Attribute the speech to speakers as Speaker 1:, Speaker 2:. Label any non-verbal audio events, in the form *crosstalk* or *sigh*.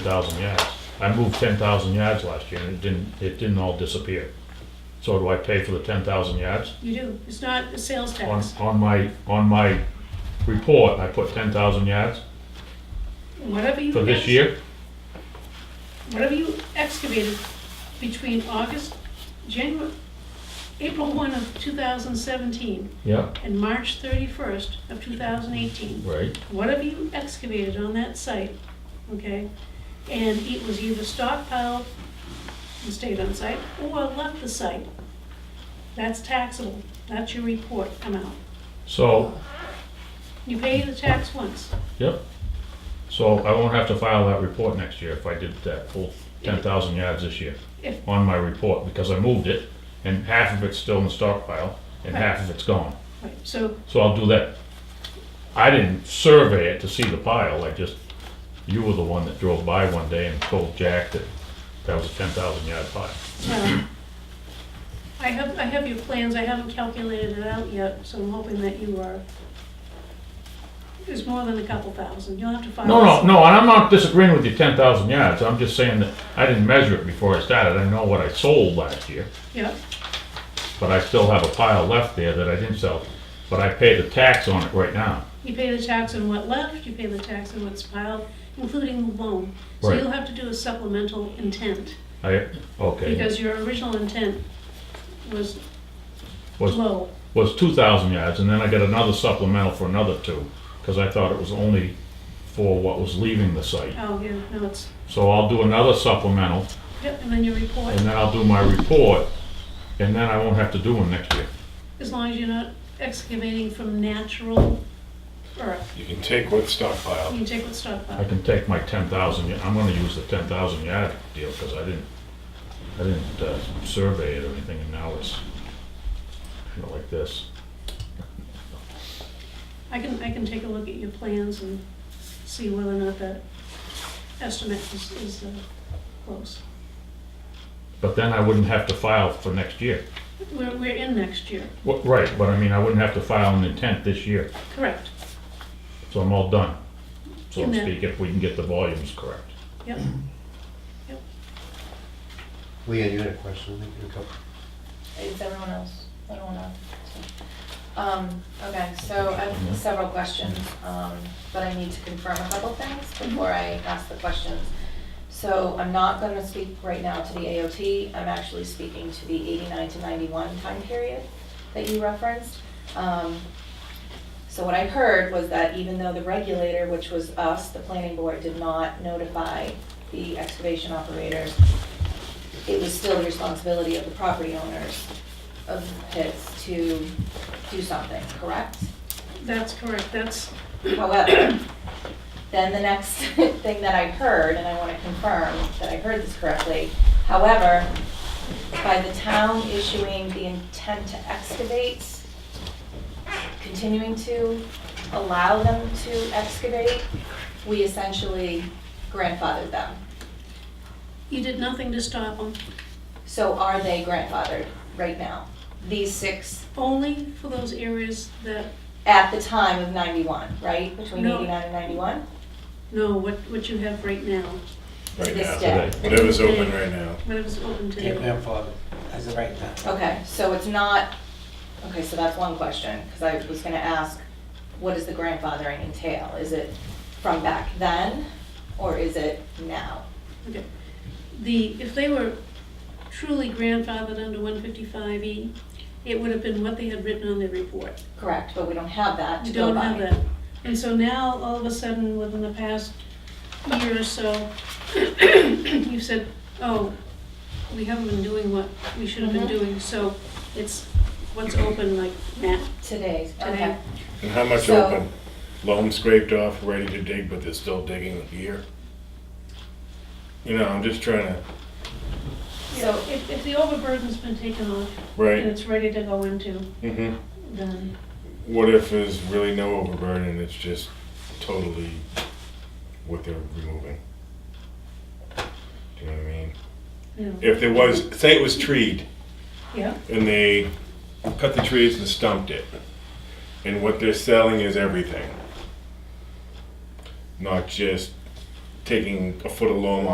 Speaker 1: thousand yards. I moved ten thousand yards last year and it didn't, it didn't all disappear. So do I pay for the ten thousand yards?
Speaker 2: You do, it's not a sales
Speaker 1: On,
Speaker 2: tax.
Speaker 1: on my, on my report, I put ten thousand yards
Speaker 2: Whatever you.
Speaker 1: for this
Speaker 2: ex-
Speaker 1: year.
Speaker 2: Whatever you excavated between August, January, April one of two thousand seventeen
Speaker 1: Yeah,
Speaker 2: and March thirty-first of two thousand eighteen.
Speaker 1: right,
Speaker 2: Whatever you excavated on that site, okay? And it was either stockpiled and stayed on site or left the site. That's taxable, that's your report amount.
Speaker 1: so,
Speaker 2: You pay the tax once.
Speaker 1: yep. So I won't have to file that report next year if I did that full ten thousand yards this year
Speaker 2: If-
Speaker 1: on my report because I moved it and half of it's still in the stockpile and half of it's gone.
Speaker 2: Right, so
Speaker 1: So I'll do that. I didn't survey it to see the pile, I just, you were the one that drove by one day and told Jack that that was a ten thousand yard pile.
Speaker 2: Well, I have, I have your plans, I haven't calculated it out yet, so I'm hoping that you are, it's more than a couple thousand, you'll have to file.
Speaker 1: No, no, no, and I'm not disagreeing with you, ten thousand yards, I'm just saying that I didn't measure it before I started, I know what I sold last year,
Speaker 2: Yep,
Speaker 1: but I still have a pile left there that I didn't sell, but I pay the tax on it right now.
Speaker 2: you pay the tax on what left, you pay the tax on what's piled, including the loan. So
Speaker 1: Right.
Speaker 2: you'll have to do a supplemental intent,
Speaker 1: I, okay,
Speaker 2: because your original intent was
Speaker 1: was,
Speaker 2: low.
Speaker 1: was two thousand yards, and then I got another supplemental for another two, cause I thought it was only for what was leaving the site.
Speaker 2: Oh, yeah, no, it's,
Speaker 1: So I'll do another supplemental,
Speaker 2: yep, and then your report,
Speaker 1: and then I'll do my report, and then I won't have to do one next year.
Speaker 2: as long as you're not excavating from natural earth,
Speaker 3: You can take what's stockpiled.
Speaker 2: you can take what's stockpiled.
Speaker 1: I can take my ten thousand, I'm gonna use the ten thousand yard deal, because I didn't, I didn't uh, survey it or anything, and now it's kind of like this.
Speaker 2: I can, I can take a look at your plans and see whether or not that estimate is, is uh, close.
Speaker 1: But then I wouldn't have to file for next year.
Speaker 2: We're, we're in next year,
Speaker 1: Wha- Right, but I mean, I wouldn't have to file an intent this year,
Speaker 2: correct?
Speaker 1: so I'm all done, so to
Speaker 2: Amen.
Speaker 1: speak, if we can get the volumes correct.
Speaker 2: Yep.
Speaker 4: Leanne, you had a question, I think, you had a couple.
Speaker 5: Is everyone else, I don't wanna. Um, okay, so I have several questions, um, but I need to confirm a couple things before I ask the questions. So I'm not gonna speak right now to the AOT, I'm actually speaking to the eighty-nine to ninety-one time period that you referenced. Um, so what I heard was that even though the regulator, which was us, the planning board, did not notify the excavation operators, it was still the responsibility of the property owners of pits to do something, correct?
Speaker 2: That's correct, that's,
Speaker 5: However, then the next *laughs* thing that I heard, and I want to confirm that I heard this correctly, however, by the town issuing the intent to excavate, continuing to allow them to excavate, we essentially grandfathered them.
Speaker 2: you did nothing to stop them,
Speaker 5: So are they grandfathered right now? These six
Speaker 2: only for those areas that,
Speaker 5: at the time of 91, right? Between
Speaker 2: No.
Speaker 5: 89 and 91?
Speaker 2: no, what, what you have right now,
Speaker 3: Right
Speaker 5: This Mm-hmm.
Speaker 3: now,
Speaker 5: day.
Speaker 3: today. Whatever's open right now.
Speaker 2: whatever's open
Speaker 6: Your
Speaker 2: today.
Speaker 6: grandfather, as of right now.
Speaker 5: Okay, so it's not, okay, so that's one question, because I was going to ask, what does the grandfathering entail? Is it from back then, or is it now?
Speaker 2: Okay. The, if they were truly grandfathered under one fifty-five E, it would have been what they had written on their report.
Speaker 5: Correct, but we don't have that to
Speaker 2: You
Speaker 5: go
Speaker 2: don't
Speaker 5: by.
Speaker 2: have that. And so now, all of a sudden, within the past year or so, *coughs* you said, oh, we haven't been doing what we should have been
Speaker 5: Mhm.
Speaker 2: doing, so it's what's open like now.
Speaker 5: Today,
Speaker 2: Today.
Speaker 5: okay.
Speaker 3: And how much
Speaker 5: So-
Speaker 3: open? Loam scraped off, ready to dig, but they're still digging here? You know, I'm just trying to,
Speaker 2: So if, if the overburden's been taken off and
Speaker 5: Mm.
Speaker 3: right?
Speaker 2: it's ready to go into,
Speaker 3: hmm
Speaker 2: then,
Speaker 3: What if there's really no overburden, it's just totally what they're removing? Do you know what I mean?
Speaker 2: you know,
Speaker 3: If there was, say it was treed,
Speaker 2: yeah,
Speaker 3: and they cut the trees and stumped it. And what they're selling is everything. Not just taking a foot of loam